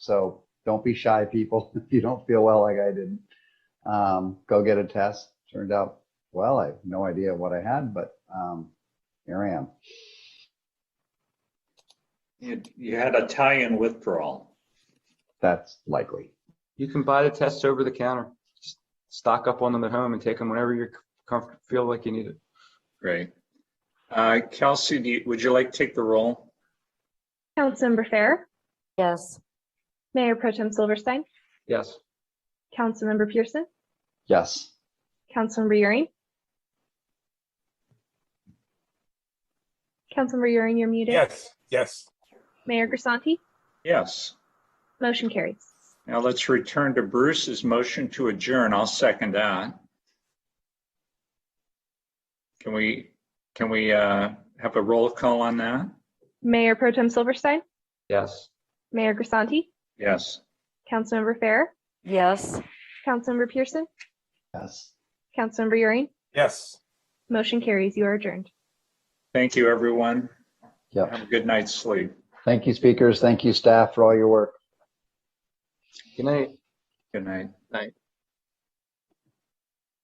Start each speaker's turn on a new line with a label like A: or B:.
A: So don't be shy, people. If you don't feel well like I didn't, um, go get a test. Turned out, well, I have no idea what I had, but um, here I am.
B: You, you had Italian withdrawal.
A: That's likely.
C: You can buy the tests over the counter. Just Stock up on them at home and take them whenever you comfort, feel like you need it.
B: Right. Uh, Kelsey, do you, would you like to take the roll?
D: Councilmember Fair,
E: Yes.
D: Mayor Pro Tem Silverstein,
C: Yes.
D: Councilmember Pearson,
A: Yes.
D: Councilmember Euring. Councilmember Euring, you're muted.
F: Yes, yes.
D: Mayor Grisanti,
B: Yes.
D: motion carries.
B: Now let's return to Bruce's motion to adjourn. I'll second that. Can we, can we, uh, have a roll call on that?
D: Mayor Pro Tem Silverstein,
C: Yes.
D: Mayor Grisanti,
B: Yes.
D: Councilmember Fair,
E: Yes.
D: Councilmember Pearson,
A: Yes.
D: Councilmember Euring,
F: Yes.
D: motion carries. You are adjourned.
B: Thank you, everyone.
A: Yep.
B: Have a good night's sleep.
A: Thank you, speakers. Thank you, staff, for all your work.
C: Good night.
B: Good night.